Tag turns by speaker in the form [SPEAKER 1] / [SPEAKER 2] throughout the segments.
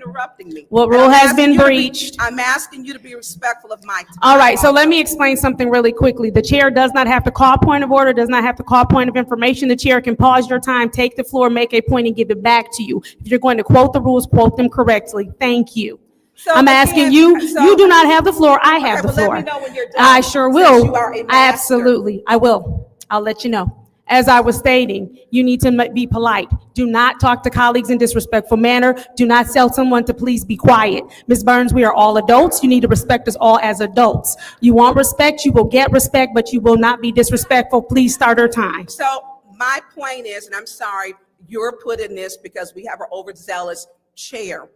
[SPEAKER 1] interrupting me.
[SPEAKER 2] What
[SPEAKER 1] And
[SPEAKER 2] rule
[SPEAKER 1] I'm
[SPEAKER 2] has
[SPEAKER 1] asking
[SPEAKER 2] been
[SPEAKER 1] you to be-
[SPEAKER 2] breached?
[SPEAKER 1] I'm asking you to be respectful of my time.
[SPEAKER 2] All right, so let me explain something really quickly. The chair does not have to call point of order, does not have to call point of information. The chair can pause your time, take the floor, make a point, and give it back to you. If you're going to quote the rules, quote them correctly. Thank you.
[SPEAKER 1] So
[SPEAKER 2] I'm
[SPEAKER 1] again,
[SPEAKER 2] asking you,
[SPEAKER 1] so-
[SPEAKER 2] you do not have the floor, I have
[SPEAKER 1] Okay,
[SPEAKER 2] the
[SPEAKER 1] well,
[SPEAKER 2] floor.
[SPEAKER 1] let me know when you're done,
[SPEAKER 2] I sure
[SPEAKER 1] since
[SPEAKER 2] will.
[SPEAKER 1] you are a master.
[SPEAKER 2] Absolutely, I will. I'll let you know. As I was stating, you need to m- be polite. Do not talk to colleagues in disrespectful manner. Do not tell someone to please be quiet. Ms. Burns, we are all adults. You need to respect us all as adults. You want respect, you will get respect, but you will not be disrespectful. Please start our time.
[SPEAKER 1] So my point is, and I'm sorry, you're put in this because we have an overzealous chair.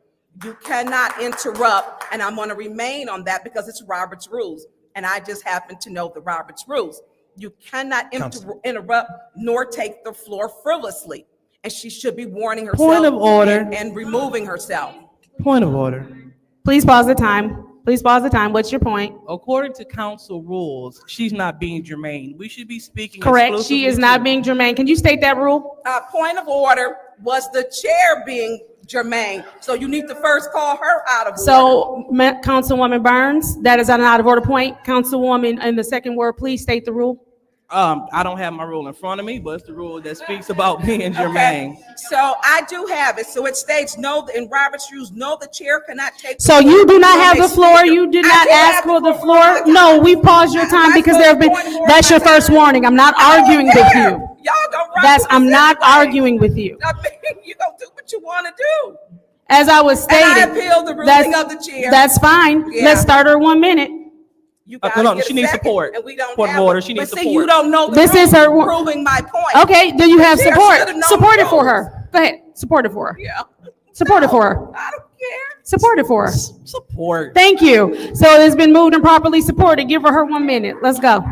[SPEAKER 1] You cannot interrupt, and I'm gonna remain on that because it's Robert's rules, and I just happen to know the Robert's rules. You cannot inter- interrupt nor take the floor frivolously, and she should be warning herself.
[SPEAKER 3] Point of order.
[SPEAKER 1] and- And removing herself.
[SPEAKER 3] Point of order.
[SPEAKER 2] Please pause the time. Please pause the time. What's your point?
[SPEAKER 3] According to council rules, she's not being germane. We should be speaking.
[SPEAKER 2] Correct, she is
[SPEAKER 3] exclusively
[SPEAKER 2] not
[SPEAKER 3] to-
[SPEAKER 2] being germane. Can you state that rule?
[SPEAKER 1] Uh, point of order was the chair being germane, so you need to first call her out of order.
[SPEAKER 2] So, Ma- Councilwoman Burns, that is an out of order point. Councilwoman, in the second word, please state the rule.
[SPEAKER 3] Um, I don't have my rule in front of me, but it's the rule that speaks about being germane.
[SPEAKER 1] Okay, So I do have it. So it states, no, in Robert's rules, no, the chair cannot take.
[SPEAKER 2] So you do not
[SPEAKER 1] from
[SPEAKER 2] have
[SPEAKER 1] a
[SPEAKER 2] the floor,
[SPEAKER 1] speaker.
[SPEAKER 2] you did
[SPEAKER 1] I
[SPEAKER 2] not
[SPEAKER 1] do have
[SPEAKER 2] ask for the
[SPEAKER 1] all
[SPEAKER 2] floor?
[SPEAKER 1] the
[SPEAKER 2] No,
[SPEAKER 1] time.
[SPEAKER 2] we paused your
[SPEAKER 1] I'm
[SPEAKER 2] time
[SPEAKER 1] not
[SPEAKER 2] because there have been,
[SPEAKER 1] supposed to point
[SPEAKER 2] that's your
[SPEAKER 1] of order.
[SPEAKER 2] first warning, I'm not
[SPEAKER 1] I don't
[SPEAKER 2] arguing with
[SPEAKER 1] care.
[SPEAKER 2] you.
[SPEAKER 1] Y'all gonna run
[SPEAKER 2] That's,
[SPEAKER 1] through
[SPEAKER 2] I'm
[SPEAKER 1] this
[SPEAKER 2] not
[SPEAKER 1] anyway.
[SPEAKER 2] arguing with you.
[SPEAKER 1] I mean, you gonna do what you wanna do.
[SPEAKER 2] As I was
[SPEAKER 1] And I
[SPEAKER 2] stating.
[SPEAKER 1] appeal the ruling
[SPEAKER 2] that's-
[SPEAKER 1] of the chair.
[SPEAKER 2] That's fine,
[SPEAKER 1] Yeah.
[SPEAKER 2] let's start her one minute.
[SPEAKER 1] You
[SPEAKER 3] Uh,
[SPEAKER 1] gotta
[SPEAKER 3] hold on.
[SPEAKER 1] get a
[SPEAKER 3] She needs
[SPEAKER 1] second,
[SPEAKER 3] support.
[SPEAKER 1] And we don't
[SPEAKER 3] Point of
[SPEAKER 1] have it.
[SPEAKER 3] order. She needs
[SPEAKER 1] But see, you
[SPEAKER 3] support.
[SPEAKER 1] don't know the
[SPEAKER 2] This
[SPEAKER 1] rules,
[SPEAKER 2] is her wa-
[SPEAKER 1] Proving my point.
[SPEAKER 2] Okay, do you have
[SPEAKER 1] The chair
[SPEAKER 2] support?
[SPEAKER 1] should've known
[SPEAKER 2] Support it for
[SPEAKER 1] the rules.
[SPEAKER 2] her, go ahead, support it for her,
[SPEAKER 1] Yeah.
[SPEAKER 2] Support it
[SPEAKER 1] No,
[SPEAKER 2] for her.
[SPEAKER 1] I don't care.
[SPEAKER 2] support it for her.
[SPEAKER 3] Support.
[SPEAKER 2] Thank you. So it's been moved and properly supported. Give her her one minute. Let's go.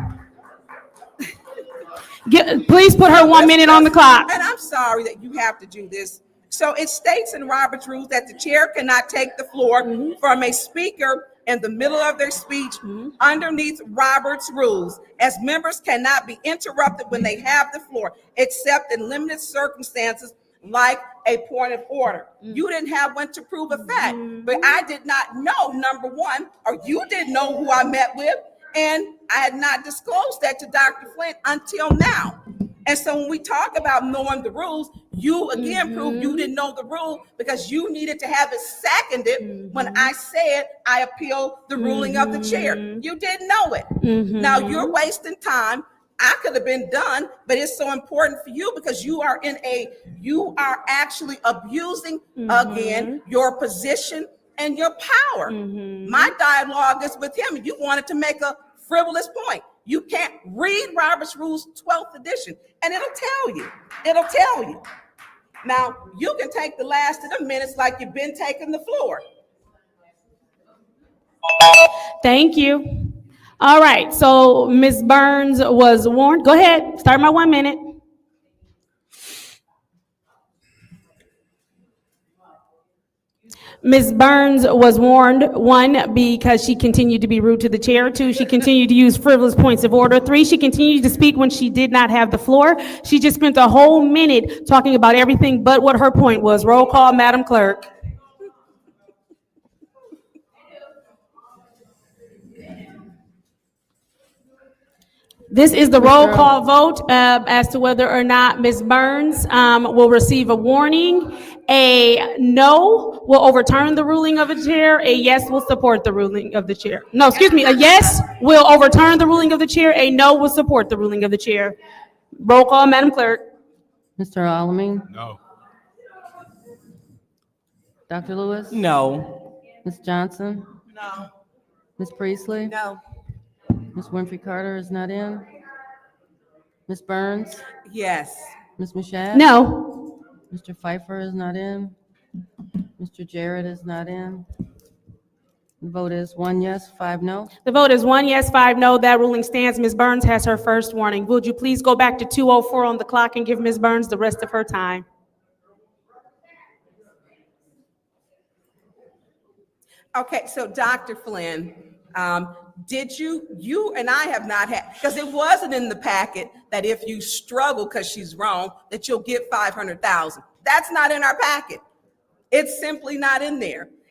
[SPEAKER 2] Get- please put her one minute on the clock.
[SPEAKER 1] And I'm sorry that you have to do this. So it states in Robert's rules that the chair cannot take the floor
[SPEAKER 2] Mm-hmm.
[SPEAKER 1] from a speaker in the middle of their speech underneath Robert's rules, as members cannot be interrupted when they have the floor, except in limited circumstances like a point of order.
[SPEAKER 2] Mm.
[SPEAKER 1] You didn't have one to prove a fact,
[SPEAKER 2] Mm-hmm.
[SPEAKER 1] but I did not know, number one, or you didn't know who I met with, and I had not disclosed that to Dr. Flint until now. And so when we talk about knowing the rules, you again prove you didn't know the rule because you needed to have it seconded when I said I appeal the ruling of the chair. You didn't know it. Now you're wasting time. I could have been done, but it's so important for you because you are in a you are actually abusing again your position and your power. My dialogue is with him. You wanted to make a frivolous point. You can't read Robert's Rules 12th edition, and it'll tell you. It'll tell you. Now, you can take the last of the minutes like you've been taking the floor.
[SPEAKER 2] Thank you. All right, so Ms. Burns was warned. Go ahead, start my one minute. Ms. Burns was warned, one, because she continued to be rude to the chair. Two, she continued to use frivolous points of order. Three, she continued to speak when she did not have the floor. She just spent a whole minute talking about everything but what her point was. Roll call, Madam Clerk. This is the roll call vote uh, as to whether or not Ms. Burns um, will receive a warning. A no will overturn the ruling of the chair. A yes will support the ruling of the chair. No, excuse me, a yes will overturn the ruling of the chair. A no will support the ruling of the chair. Roll call, Madam Clerk.
[SPEAKER 4] Mr. Alamin?
[SPEAKER 5] No.
[SPEAKER 4] Dr. Lewis?
[SPEAKER 3] No.
[SPEAKER 4] Ms. Johnson? No. Ms. Priestley?
[SPEAKER 1] No.
[SPEAKER 4] Ms. Winfrey Carter is not in? Ms. Burns?
[SPEAKER 1] Yes.
[SPEAKER 4] Ms. Mashat?
[SPEAKER 2] No.
[SPEAKER 4] Mr. Pfeiffer is not in? Mr. Jarrett is not in? The vote is one yes, five no.
[SPEAKER 2] The vote is one yes, five no. That ruling stands. Ms. Burns has her first warning. Would you please go back to 2:04 on the clock and give Ms. Burns the rest of her time?
[SPEAKER 1] Okay, so Dr. Flynn, um, did you, you and I have not had, because it wasn't in the packet that if you struggle because she's wrong, that you'll get 500,000. That's not in our packet. It's simply not in there.